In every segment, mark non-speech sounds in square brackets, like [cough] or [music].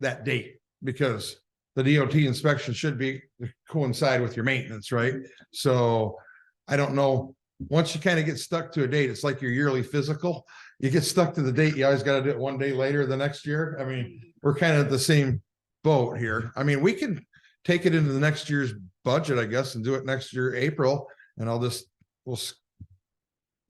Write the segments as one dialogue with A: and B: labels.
A: that date because the DOT inspection should be coincide with your maintenance, right? So I don't know. Once you kind of get stuck to a date, it's like your yearly physical. You get stuck to the date, you always got to do it one day later the next year. I mean, we're kind of the same boat here. I mean, we can take it into the next year's budget, I guess, and do it next year, April, and I'll just, we'll s-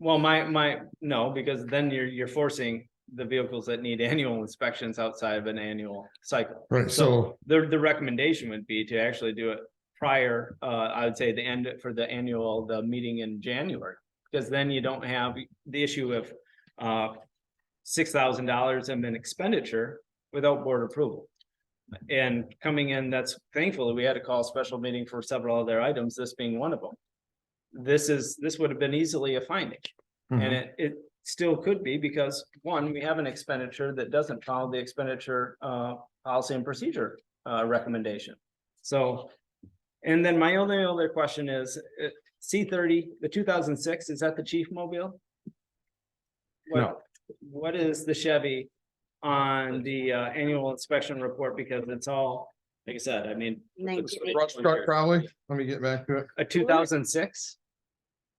B: Well, my, my, no, because then you're, you're forcing the vehicles that need [laughs] annual inspections outside of an annual cycle.
A: right, so,
B: The, the recommendation would be to actually do it prior, uh, I would say the end for the annual, the meeting in January. Because then you don't have the issue of, uh, six thousand dollars in an expenditure without board approval. And coming in, that's thankfully, we had to call a special meeting for several other items, this being one of them. This is, this would have been easily a finding. And
A: Mhm.
B: it, it still could be because, one, we have an expenditure that doesn't follow the expenditure, uh, policy and procedure, uh, recommendation. So, and then my only other question is, uh, C thirty, the two thousand six, is that the chief mobile? What-
A: No.
B: What is the Chevy on the, uh, annual inspection report? Because it's all, like I said, I mean,
C: Nineteen, eight-
A: brush truck probably, let me get back to it.
B: a two thousand six?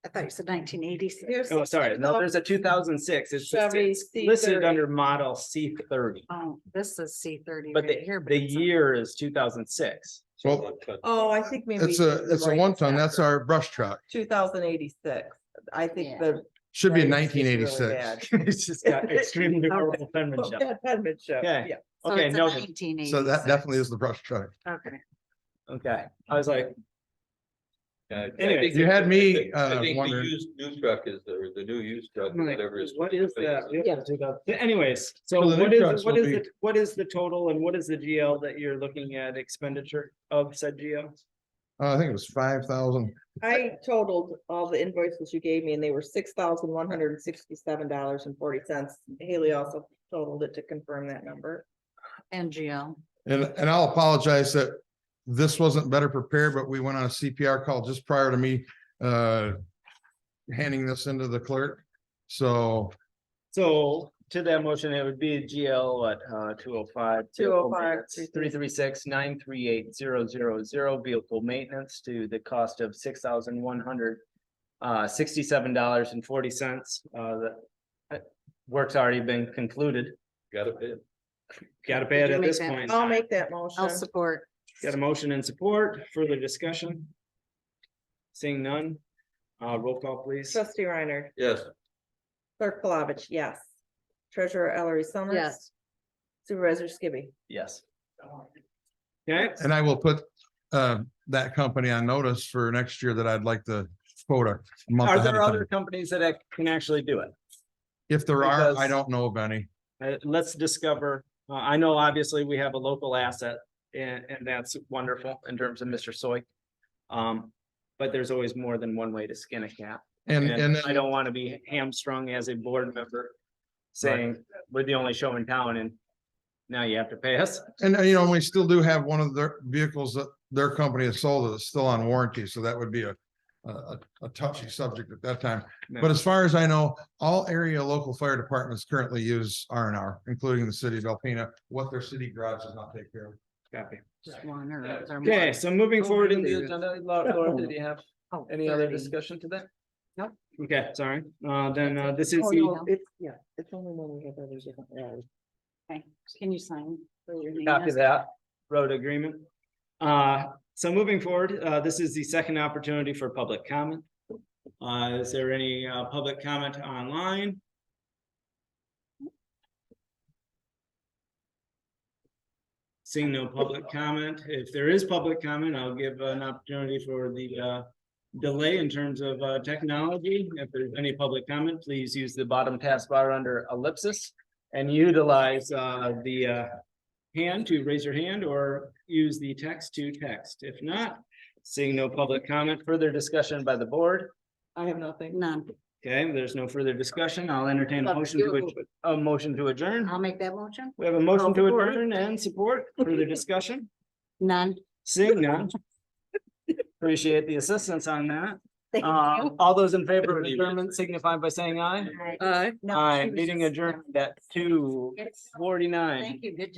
C: I thought you said nineteen eighty-six.
B: Oh, sorry, no, there's a two thousand six. It's just-
C: Chevy
B: it's listed
C: C30.
B: under model C thirty.
C: Oh, this is C thirty
B: But
C: right
B: the,
C: here. but
B: the
C: it's-
B: year is two thousand six. [laughs]
A: Well,
D: Oh, I think maybe.
A: it's a, it's a one ton, that's our brush truck,
D: Two thousand eighty-six. I
C: Yeah.
D: think the.
A: should be
D: writing's just
A: nineteen
D: really
A: eighty-six.
D: bad.
B: [laughs] It's just got extremely
C: Okay.
B: horrible penmanship.
D: Bad [laughs] penmanship,
B: Okay.
D: yeah.
C: so
B: okay,
C: it's a
B: no,
C: 1986.
A: So that definitely is the brush truck.
C: Okay.
B: Okay, I was like,
E: Yeah, I
B: Anyway.
E: think
A: You
E: the-
A: had me,
E: I think-
A: uh,
E: I think the
A: wondering.
E: used new truck is, the- or the new used truck,
B: I'm like,
E: whatever is.
B: what is that? We have to do that. But Anyways, so
A: So the
B: what
A: new
B: is,
A: trucks
B: what
A: will
B: is,
A: be-
B: the- what is the total and what is the GL that you're looking at expenditure of said GL?
A: Uh, I think it was five thousand,
D: I totaled all the invoices you gave me and they were six thousand one hundred and sixty-seven dollars and forty cents. Haley also totaled it to confirm that number.
C: NGL.
A: and, and I'll apologize that this wasn't better prepared, but we went on a CPR call just prior to me, uh, handing this into the clerk, so
B: So to that motion, it would be GL what, uh, two oh five?
D: 205,
B: Three three six nine three eight zero zero zero vehicle maintenance to the cost of six thousand one hundred uh, sixty-seven dollars and forty cents, uh, the uh, work's already been concluded.
E: Got it.
B: Gotta pay it
C: you
B: at
C: make
B: this
C: that-
B: point. in
D: I'll
B: time.
D: make that motion.
C: I'll support.
B: Got a motion and support, further discussion? Seeing none, uh, roll call please.
D: Trustee Reiner,
E: Yes,
D: clerk Palovich, yes. Treasurer Ellery Summers.
C: Yes.
D: Supervisor Skibby.
B: Yes. Okay,
A: And I will put uh that company on notice for next year that I'd like the quota. a month
B: are
A: ahead
B: there
A: of
B: other
A: time.
B: companies that ac- can actually do it?
A: If there are, I
B: because-
A: don't know of any.
B: Uh, let's discover, uh, I know obviously we have a local asset and, and that's wonderful in terms of Mr. Soy. Um, but there's always more than one way to skin a cat.
A: And and
B: And I don't want to be hamstrung as a board member saying, we're the only show in town and now you have to pay us.
A: and uh, you know, we still do have one of their vehicles that their company has sold that's still on warranty, so that would be a a a- a touchy subject at that time. But as far as I know, all area local fire departments currently use R and R, including the city of Alpena, what their city garage does not take care of.
B: Copy.
C: Just one or. is there more?
B: Okay, so moving
C: Oh,
B: forward in the
C: really?
B: agenda, Laura, Laura, did you have
C: Oh,
B: any other
C: 30.
B: discussion to that?
C: Nope.
B: Okay, sorry. Uh, then, uh, this is
D: Oh,
B: the,
D: no, It's, yeah, it's only when we have others. yeah.
C: Okay. Can you sign? where your name
B: copy
C: is?
B: that, road agreement. Uh, so moving forward, uh, this is the second opportunity for public comment. Uh, is there any, uh, public comment online? Seeing no public comment, if there is public comment, I'll give an opportunity for the, uh, delay in terms of, uh, technology. If there's any public comment, please use the bottom taskbar under ellipsis and utilize, uh, the, uh, hand to raise your hand or use the text to text. If not, seeing no public comment, further discussion by the board.
D: I have nothing.
C: None.
B: Okay, there's no further discussion. I'll entertain a
C: Love
B: motion to,
C: you.
B: adj- a motion to adjourn.
C: I'll make that motion.
B: We have a motion to
D: support.
B: adjourn and support. Further discussion?
C: [laughs] None.
B: Seeing none. Um, Appreciate the assistance on that.
C: Thank
B: Uh,
C: you.
B: all those in favor of adjournment signify by saying aye. uh,
C: All right.
D: Aye.
C: No, she
B: Aye,
C: was
B: meeting
C: just-
B: adjourned at two
C: Yes.
B: forty-nine.
C: Thank you. Good